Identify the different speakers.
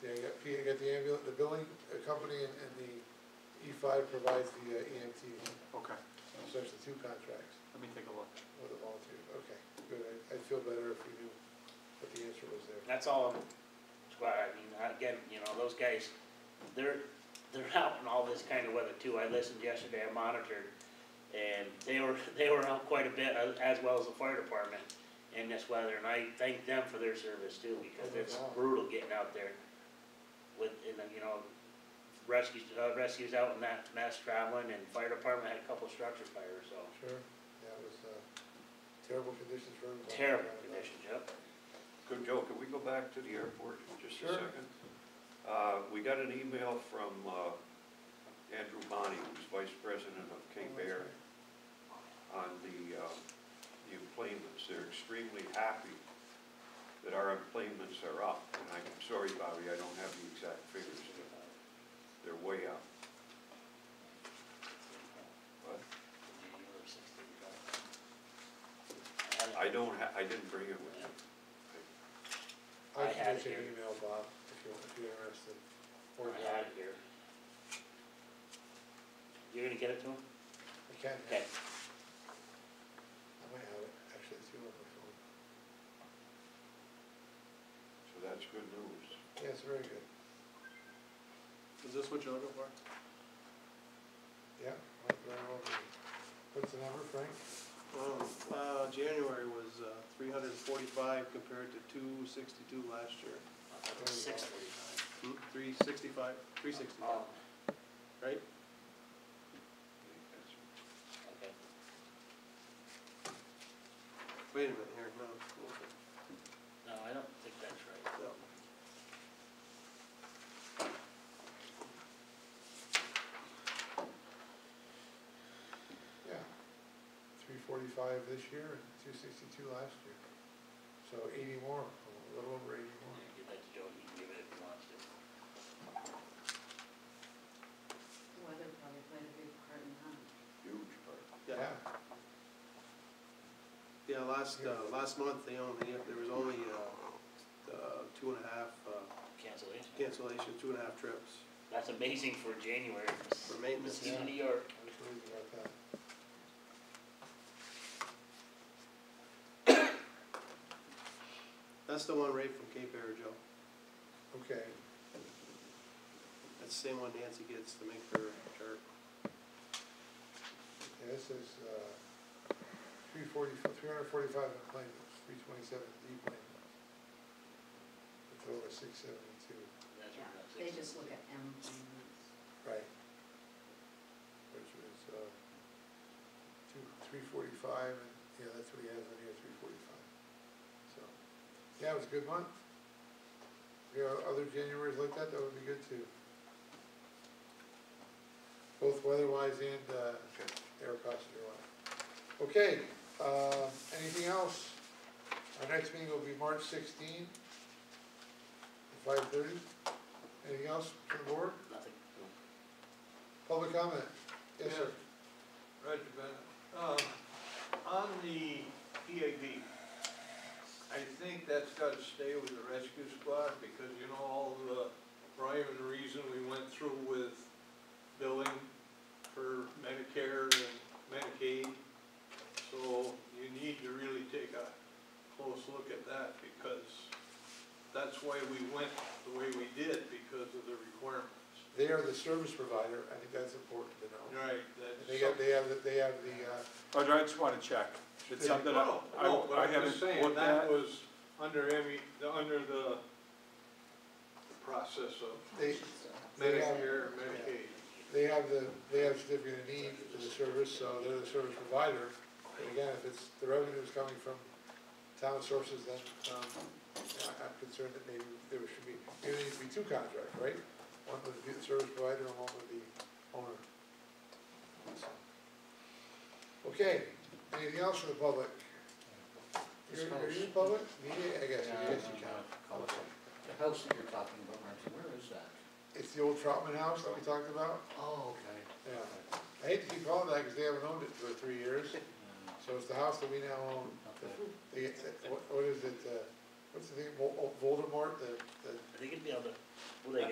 Speaker 1: Yeah, you got, Peter got the ambulance, the billing uh, company and, and the E five provides the uh, EMT,
Speaker 2: Okay,
Speaker 1: so there's the two contracts
Speaker 2: let me take a look.
Speaker 1: with the volunteers, okay, good, I, I'd feel better if we knew what the answer was there.
Speaker 3: That's all, I'm- that's why, I mean, I- again, you know, those guys, they're, they're out in all this kind of weather too. I listened yesterday, I monitored, and they were, they were out quite a bit, as as well as the fire department in this weather, and I thank them for their service too, because it's brutal getting out there with, and then, you know, rescues, uh, rescues out in that mess traveling, and fire department had a couple structure fires, so
Speaker 1: Sure, yeah, it was, uh, terrible conditions for everybody.
Speaker 3: terrible conditions, yep.
Speaker 4: Good Joe, can we go back to the airport for just a
Speaker 1: Sure.
Speaker 4: second? Uh, we got an email from, uh, Andrew Bonney, who's vice president of
Speaker 1: Oh,
Speaker 4: Cape Air, on the, uh, the employments. They're extremely happy that our employments are up. And I'm sorry, Bobby, I don't have the exact figures. They're way up. But I don't ha, I didn't bring it with me.
Speaker 1: Oh, I
Speaker 3: I had
Speaker 1: can just an
Speaker 3: it here.
Speaker 1: email, Bob, if you're, if you're interested. Or
Speaker 3: We're
Speaker 1: not,
Speaker 3: out of here. You're gonna get it to him?
Speaker 1: I can, have
Speaker 3: Okay.
Speaker 1: it. I might have it, actually, it's here on my phone.
Speaker 4: So that's good news.
Speaker 1: Yeah, it's very good,
Speaker 2: Is this what you're looking for?
Speaker 1: yeah, right there, over. What's the number, Frank?
Speaker 5: Um, Uh, January was uh, 345 compared to 262 last year.
Speaker 3: I thought it was Six forty-five.
Speaker 5: Hmm, 365, 365,
Speaker 3: Oh,
Speaker 5: right?
Speaker 4: That's
Speaker 3: okay.
Speaker 5: Wait a minute here, no.
Speaker 3: No, I don't think that's right.
Speaker 5: no.
Speaker 1: Yeah, three forty-five this year and two sixty-two last year. So eighty more, a little over eighty
Speaker 3: I'm
Speaker 1: more.
Speaker 3: gonna Give that to Joe, he can give it if he wants to.
Speaker 6: The weather probably played a big part in that.
Speaker 4: a huge part.
Speaker 5: Yeah, yeah, last, uh, last month, they only, there was only uh, uh, two and a half uh,
Speaker 3: Cancellation.
Speaker 5: cancellation, two and a half trips.
Speaker 3: That's amazing for January.
Speaker 5: For maintenance,
Speaker 3: Even
Speaker 1: yeah.
Speaker 3: New York.
Speaker 1: I was worried about that.
Speaker 5: That's the one right from Cape Air, Joe.
Speaker 1: Okay,
Speaker 5: That's the same one Nancy gets to make her chart.
Speaker 1: yeah, this is, uh, three forty, three hundred forty-five in claimants, three twenty-seven deplaners. It's over six seventy-two,
Speaker 3: That's
Speaker 6: Yeah,
Speaker 3: what that's-
Speaker 6: They just look at M payments.
Speaker 1: right? Which was, uh, two, three forty-five, and, yeah, that's what he has on here, three forty-five. So, yeah, it was a good month. If you have other Januaries like that, that would be good too. Both weather-wise and, uh, air passenger-wise. Okay, um, anything else? Our next meeting will be March sixteen, five thirty. Anything else from the board?
Speaker 3: Nothing.
Speaker 1: Public comment? Yes, sir.
Speaker 7: Roger Bennett. Um, On the EAD, I think that's got to stay with the rescue squad because you know all the rhyme and reason we went through with billing for Medicare and Medicaid. So you need to really take a close look at that because that's why we went the way we did because of the requirements.
Speaker 1: They are the service provider, I think that's important to know.
Speaker 7: Right,
Speaker 1: And
Speaker 7: that's.
Speaker 1: They have, they have, the- they have the, uh,
Speaker 2: Oh, I just want to check. It's something I,
Speaker 7: No,
Speaker 2: I-
Speaker 7: no, but
Speaker 2: I
Speaker 7: I'm
Speaker 2: haven't
Speaker 7: just saying,
Speaker 2: looked
Speaker 7: that
Speaker 2: at.
Speaker 7: was under every, the, under the process of
Speaker 1: they, they have,
Speaker 7: Medicare, Medicaid.
Speaker 1: they have the, they have certificate of need for the service, so they're the service provider. And again, if it's, the revenue is coming from town sources, then, um, I- I'm concerned that maybe there should be, maybe there needs to be two contracts, right? One with the service provider and one with the owner. So. Okay, anything else from the public? You're, are you public? Media, I guess, I guess you can.
Speaker 8: The house that you're talking about, Marcy, where is that?
Speaker 1: It's the old Troutman House that we talked about?
Speaker 8: Oh, okay.
Speaker 1: Yeah. I hate to keep calling that because they haven't owned it for three years,
Speaker 8: Uh,
Speaker 1: so it's the house that we now own.
Speaker 8: Okay.
Speaker 1: They get- what- what is it, uh, what's the name, Vol- Voldemort, the, the,
Speaker 3: I think it'd be able to, Well, they